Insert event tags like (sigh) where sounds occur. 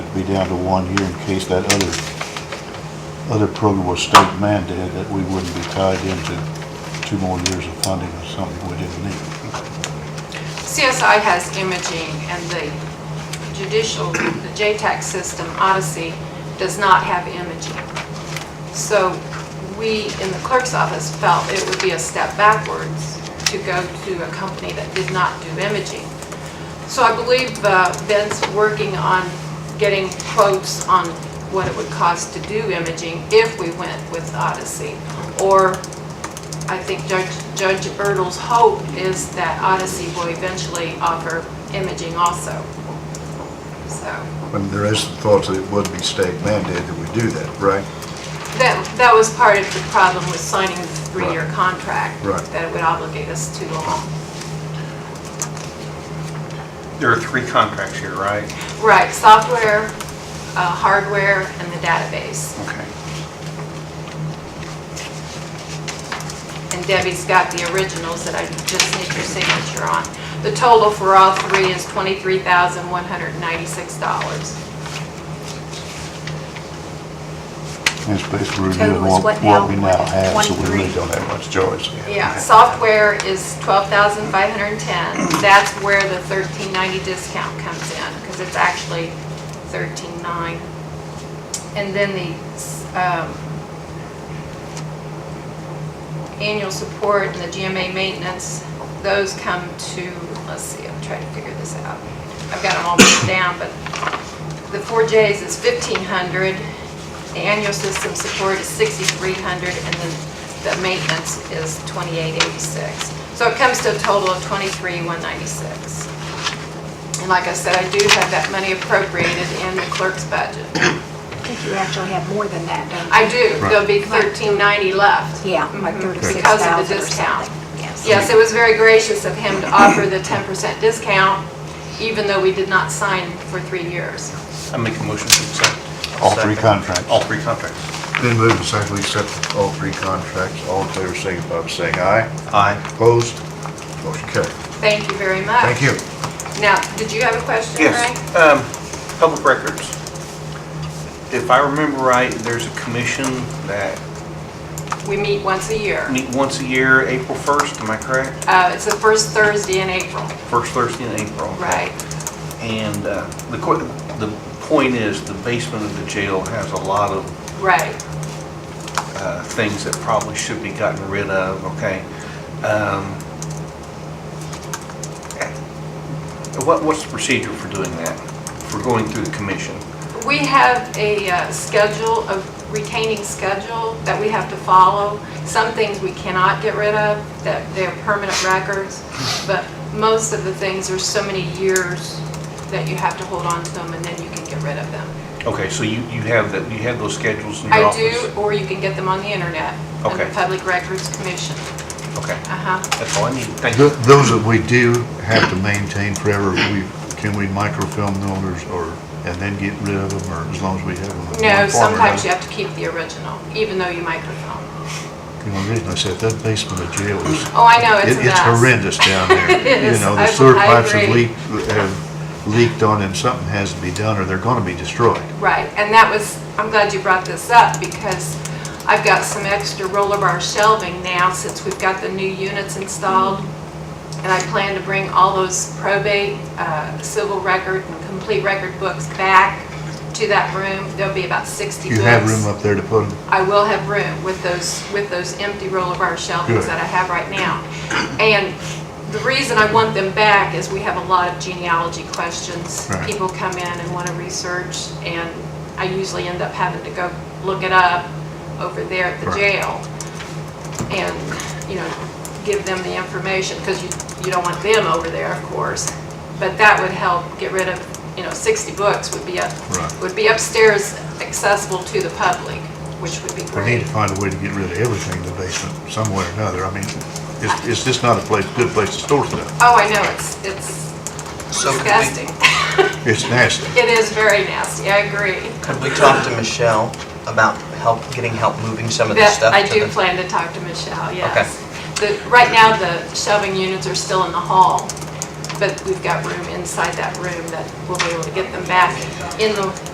be down to one here in case that other, other program was state mandated, that we wouldn't be tied into two more years of funding or something we didn't need. CSI has imaging, and the judicial, the JTAC system, Odyssey, does not have imaging. So we, in the clerk's office, felt it would be a step backwards to go to a company that did not do imaging. So I believe uh, Ben's working on getting quotes on what it would cost to do imaging if we went with Odyssey. Or I think Judge Judge Ertles' hope is that Odyssey will eventually offer imaging also. So, I mean, there is some thoughts that it would be state mandated that we do that, right? that, that was part of the problem with signing the three-year contract. Right. That it would obligate us too long. There are three contracts here, right? Right, software, uh, hardware, and the database. Okay. And Debbie's got the originals that I just need your signature on. The total for all three is twenty-three thousand, one hundred and ninety-six dollars. And it's basically Total reviewing is what, what what we now? now have, so we Twenty-three. really We don't have much choice. Yeah, software is twelve thousand five hundred and ten. That's where the thirteen ninety discount comes in, because it's actually thirteen nine. And then the, um, annual support and the GMA maintenance, those come to, let's see, I'm trying to figure this out. I've got them all written down, but the four Js is fifteen hundred, the annual system support is sixty-three hundred, and then the maintenance is twenty-eight eighty-six. So it comes to a total of twenty-three one ninety-six. And like I said, I do have that money appropriated in the clerk's budget. I think you actually have more than that, don't you? I do, there'll be thirteen ninety left. Yeah, like Mhm, thirty-six because of the thousand or discount. something. Yes. Yes, it was very gracious of him to offer the ten percent discount, even though we did not sign for three years. I make a motion to accept. All three Second. contracts. All three contracts. Then move and second, we accept all three contracts. All in favor, signify by saying aye. Aye. Opposed? Motion carried. Thank you very much. Thank you. Now, did you have a question, Yes, Ray? um, public records. If I remember right, there's a commission that We meet once a year. meet once a year, April 1st, am I correct? Uh, It's the first Thursday in April, First Thursday in April. right? And uh, the, que- the point is, the basement of the jail has a lot of Right. uh, things that probably should be gotten rid of, okay? Um, What, what's the procedure for doing that, for going through the commission? We have a uh, schedule, a retaining schedule that we have to follow. Some things we cannot get rid of, that they're permanent records, but most of the things are so many years that you have to hold on to them and then you can get rid of them. Okay, so you, you have that, you have those schedules in your I office? do, or you can get them on the internet, on the Okay. Public Records Commission. Okay, Uh-huh. that's all I need, thank you. Th- Those that we do have to maintain forever, we, can we microfilm those or, and then get rid of them, or as long as we have them? in No, one form or sometimes another? you have to keep the original, even though you microfilm. You know, the reason I said that basement of jail is. Oh, I know, it's It- a mess. It's horrendous (laughs) down there. It is. You know, the I- sewer I pipes have agree. leaked, have leaked on and something has to be done or they're gonna be destroyed. Right, and that was, I'm glad you brought this up because I've got some extra roller bar shelving now since we've got the new units installed. And I plan to bring all those probate, uh, civil record and complete record books back to that room. There'll be about 60 You books. have room up there to put them? I will have room with those, with those empty roller bar shelvings Good. that I have right now. And the reason I want them back is we have a lot of genealogy questions. Right. People come in and want to research, and I usually end up having to go look it up over there at the Right. jail. And, you know, give them the information, because you, you don't want them over there, of course. But that would help get rid of, you know, 60 books would be up, Right. would be upstairs accessible to the public, which would be We need great. to find a way to get rid of everything in the basement, some way or another. I mean, it's, it's just not a place, good place to store stuff. Oh, I know, it's, it's So could we, disgusting. It's nasty. It is very nasty, I agree. could we talk to Michelle about help, getting help moving some of That, this stuff I to do the? plan to talk to Michelle, yes. The, right now, the shelving units are still in the hall, but we've got room inside that room that we'll be able to get them back in the,